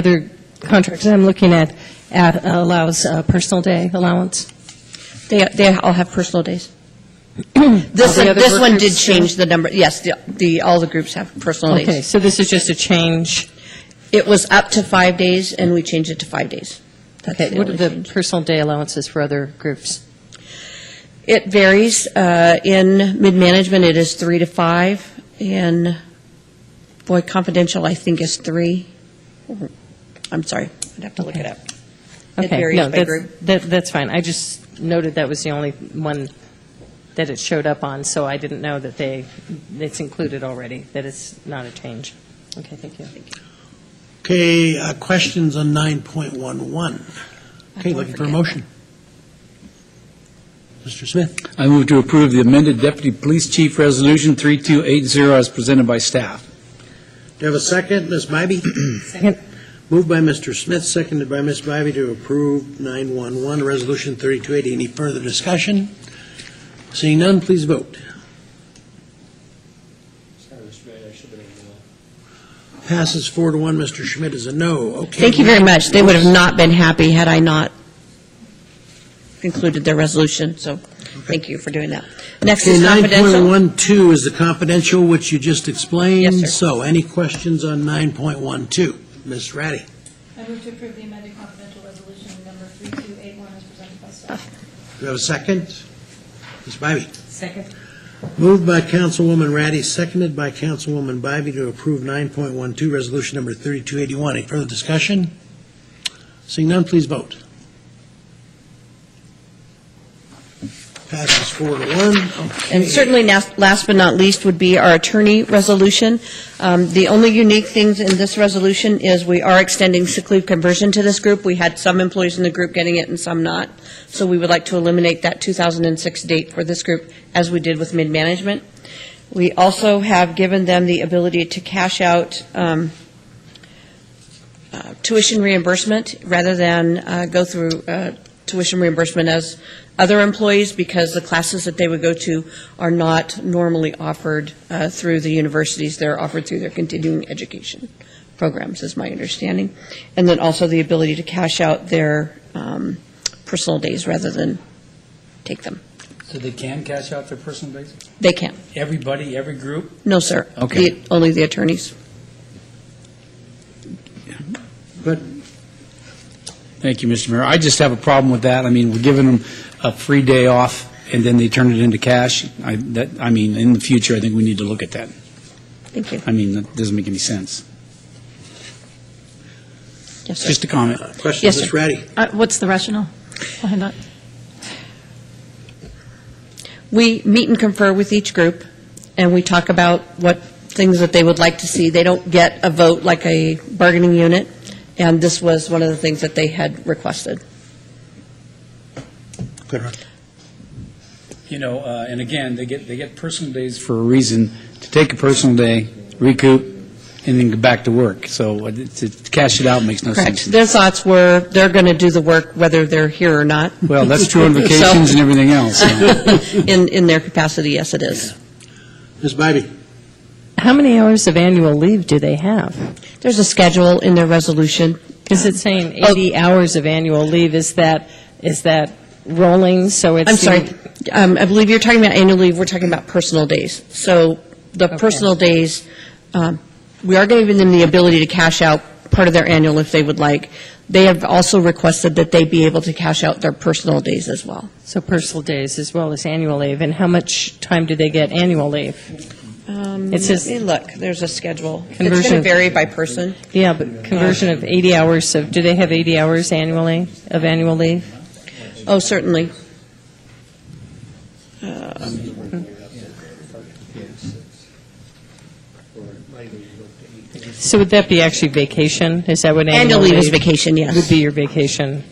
other contracts that I'm looking at at- allows uh, personal day allowance. They, they all have personal days. This, All the one- other this one work did groups, change the number, yes, the- the, all the groups have personal Okay, days. so this is just a change. It was up to five days, and we changed it to five days. That's Okay, the what are only the change. personal day allowances for other groups? It varies. uh, In mid-management, it is three to five, and boy, confidential, I think, is three. I'm sorry, I'd have to look it up. It Mm-hmm. Okay, varies no, by that's- group. that- That's fine. I just noted that was the only one that it showed up on, so I didn't know that they, it's included already, that it's not a change. Okay, thank you. Okay, uh, questions on 9.11. Okay, don't looking for a forget. motion. Mr. Smith, I move to approve the amended Deputy Police Chief Resolution 3280 as presented by staff. do you have a second? Ms. Bybee? Second. Moved by Mr. Smith, seconded by Ms. Bybee to approve 911, Resolution 3280. Any further discussion? Seeing none, please vote. Sorry, Mr. Mayor, I should have been in the- Passes four to one. Mr. Schmidt is a no. Okay. Thank you very much. They would have not been happy had I not included their resolution, so thank you for doing that. Next Okay, is confidential. 9.12 is the confidential, which you just explained. Yes, sir. So any questions on 9.12? Ms. Ratty? I move to approve the amended confidential resolution number 3281 as presented by staff. Do we have a second? Ms. Bybee? Second. Moved by Councilwoman Ratty, seconded by Councilwoman Bybee to approve 9.12, Resolution Number 3281. Any further discussion? Seeing none, please vote. Passes four to one. And certainly, nas- last but not least, would be our attorney resolution. Um, The only unique things in this resolution is we are extending sick leave conversion to this group. We had some employees in the group getting it and some not, so we would like to eliminate that 2006 date for this group, as we did with mid-management. We also have given them the ability to cash out um, uh, tuition reimbursement rather than uh, go through uh, tuition reimbursement as other employees because the classes that they would go to are not normally offered uh, through the universities. They're offered through their continuing education programs, is my understanding. And then also the ability to cash out their um, personal days rather than take them. So they can cash out their personal days? They can. Everybody, every group? No, sir. Okay. The- Only the attorneys. Thank you, Mr. Mayor. I just have a problem with that. I mean, we're giving them a free day off, and then they turn it into cash. I, that, I mean, in the future, I think we need to look at that. Thank you. I mean, that doesn't make any sense. Yes, sir. Just a comment. Question, Yes, Ms. sir. Ratty? Uh, What's the rationale behind that? We meet and confer with each group, and we talk about what things that they would like to see. They don't get a vote like a bargaining unit, and this was one of the things that they had requested. Good one. You know, uh, and again, they get, they get personal days for a reason, to take a personal day, recoup, and then go back to work. So uh, to to cash it out makes no sense. Correct. Their thoughts were, they're going to do the work whether they're here or not. Well, that's true on So- vacations and everything else, so. In, in their capacity, yes, it is. Ms. Bybee? How many hours of annual leave do they have? There's a schedule in their resolution. Is it saying Oh. 80 hours of annual leave? Is that, is that rolling, so it's... I'm sorry, um, I believe you're talking about annual leave, we're talking about personal days. So the Okay. personal days, um, we are giving them the ability to cash out part of their annual if they would like. They have also requested that they be able to cash out their personal days as well. So personal days as well as annual leave, and how much time do they get annual leave? It says- Um, Let me look, there's a schedule. It's going to Conversion- vary by person. Yeah, but conversion of 80 hours of, do they have 80 hours annually, of annual leave? Oh, certainly. Uh, So would that be actually vacation? Is that what annual Annual leave? leave is vacation, Would yes, be your vacation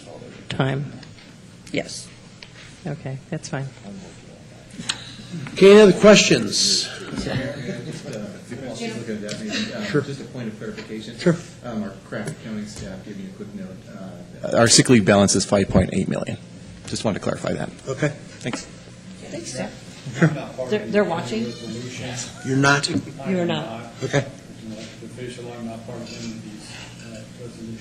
time? yes. Okay, that's fine. Okay, any other questions? Sure. Sure. Just a point of clarification. Sure. Um, Our Craft accounting staff gave me a quick note. uh, that- Our sick leave balance is 5.8 million. Just wanted to clarify that. Okay, Thanks. They're- they're watching? you're not? You're not. Okay. I'm not Official, I'm not part of any of these uh, resolutions.